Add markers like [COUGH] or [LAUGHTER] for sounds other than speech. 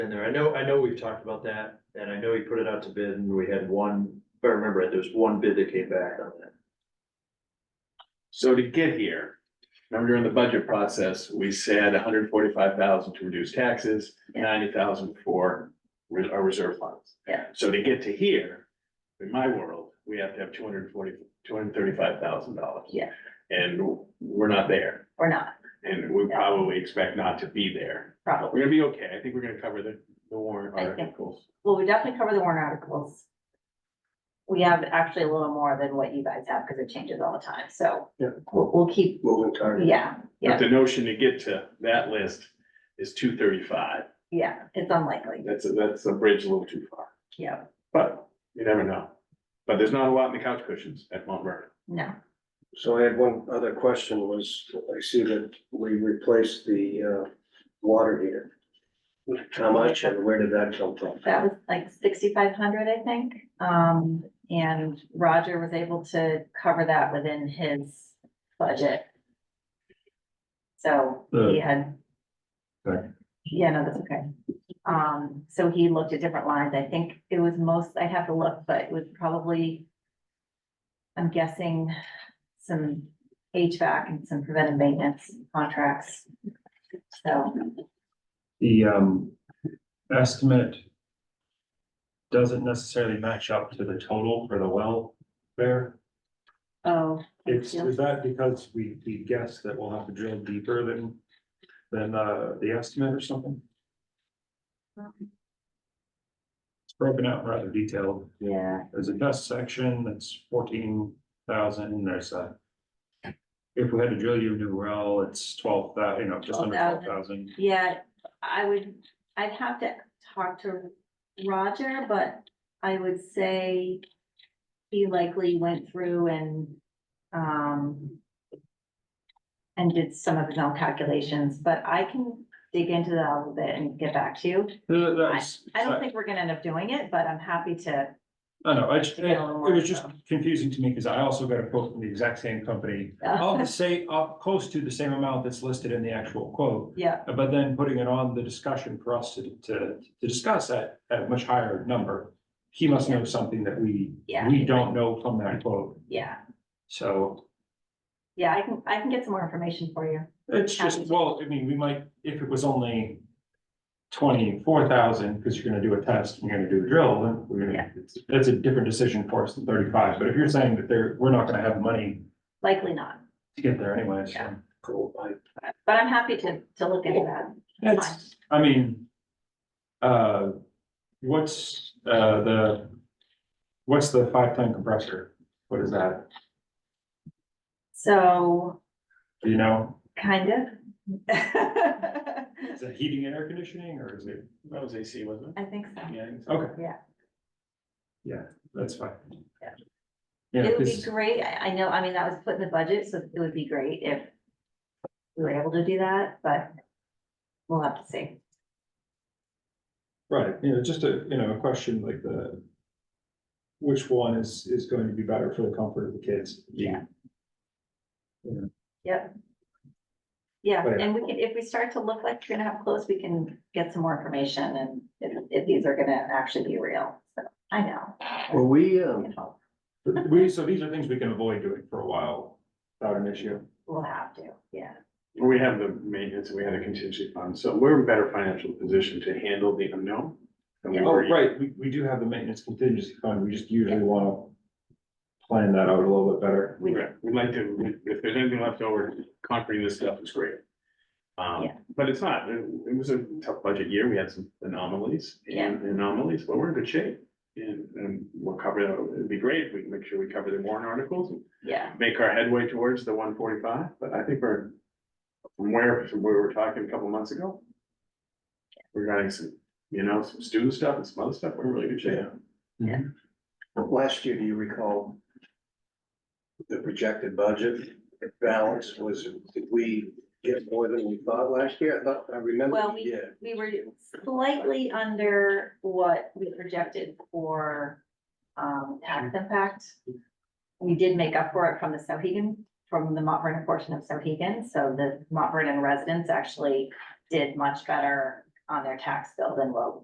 in there. I know, I know we've talked about that, and I know he put it out to bid, and we had one, if I remember it, there was one bid that came back on that. So to get here, remember during the budget process, we said hundred forty-five thousand to reduce taxes, Yeah. ninety thousand for re- our reserve funds. Yeah. So to get to here, in my world, we have to have two hundred forty, two hundred thirty-five thousand dollars. Yeah. And we're not there, or not, and we Yeah. probably expect not to be there. We're probably. gonna be okay. I think we're gonna cover the, the warrant I think- articles. Well, we definitely cover the warrant articles. We have actually a little more than what you guys have because it changes all the time, so. Yeah. We'll, we'll keep, What we targeted. yeah, But yeah, the notion to get to that list is two thirty-five. yeah, it's unlikely, That's, a- that's a bridge a little too far. yeah, But you never know. But there's not a lot in the couch cushions at Mount Vernon. no, So I had one other question was, I see that we replaced the uh water heater. How much and where did that come from? that was like sixty-five hundred, I think. Um, and Roger was able to cover that within his budget. So he had. Sorry. Yeah, no, that's okay. Um, so he looked at different lines. I think it was most, I have to look, but it was probably. I'm guessing some HVAC and some preventive maintenance contracts. So, The um estimate. Doesn't necessarily match up to the total for the welfare. oh. It's, is that because we we guess that we'll have to drill deeper than than uh the estimate or something? It's broken out rather detailed. Yeah, There's a dust section that's fourteen thousand and there's a. If we had to drill you a new well, it's twelve thousand. you know, just under twelve 12,000. thousand. yeah, I would, I'd have to talk to Roger, but I would say. He likely went through and, um. And did some of his own calculations, but I can dig into that a little bit and get back to you. I don't think we're gonna end up doing it, but I'm happy to, I know, I just, To it get a little more was just info. confusing to me because I also got a quote from the exact [LAUGHS] same company. All the same, up close to the same amount that's listed in the actual quote, yeah, but then putting it on the discussion for us to, to, to discuss at, at a much higher number. He must know something that we, Yeah. we don't know from that quote, yeah, so yeah, I can, I can get some more information for you. it's just, Happy. well, I mean, we might, if it was only twenty-four thousand, because you're gonna do a test, and you're gonna do a drill, then we're Yeah. gonna, it's- that's a different decision for us than thirty-five, but if you're saying that there, we're not gonna have money Likely not, to get there anyways. Yeah. Cool, I- but I'm happy to, to look into that. It's, I mean, uh, what's, uh, the, what's the five ton compressor? What is that? So, Do you know? kind of. [LAUGHS] I Is it heating and air conditioning or is it? That was AC, wasn't think so. it? Yeah. I think so. Okay. Yeah. Yeah, that's fine. Yeah. Yeah, It would be 'cause- great, I, I know, I mean, that was put in the budget, so it would be great if we were able to do that, but we'll have to see. Right, you know, just a, you know, a question like the. Which one is, is going to be better for the comfort of the kids? Yeah. Yep. Yeah, Right. and we can, if we start to look like you're gonna have close, we can get some more information and if, if these are gonna actually be real, so, I know. Were we, um, But We, so these are things we can avoid doing for a while without an issue. We'll have to, yeah, We have the maintenance, and we have the contingency fund, so we're in better financial position to handle the unknown. than we Oh, were. right, we, we do have the maintenance contingency fund, we just usually wanna plan that out a little bit better. we, Right. We'd like to, if there's anything left over, conquering this stuff is great. Um, Yeah. but it's not, it it was a tough budget year, we had some anomalies, and anomalies, but we're in good shape. And, and we'll cover, that. it'd be great, if we can make sure we cover the warrant articles, and yeah, make our headway towards the one forty-five, but I think we're from where, from where we were talking a couple months ago. Regarding some, you know, some student stuff and some other stuff, we're in really good shape. last year, do you recall? The projected budget balance was, did we get more than we thought last year? I thought, I remember Well, we did. we were slightly under what we projected for, um, tax impact. We did make up for it from the Sohegan, from the Mont Vernon portion of Sohegan, so the Mont Vernon residents actually did much better, on their tax bill than what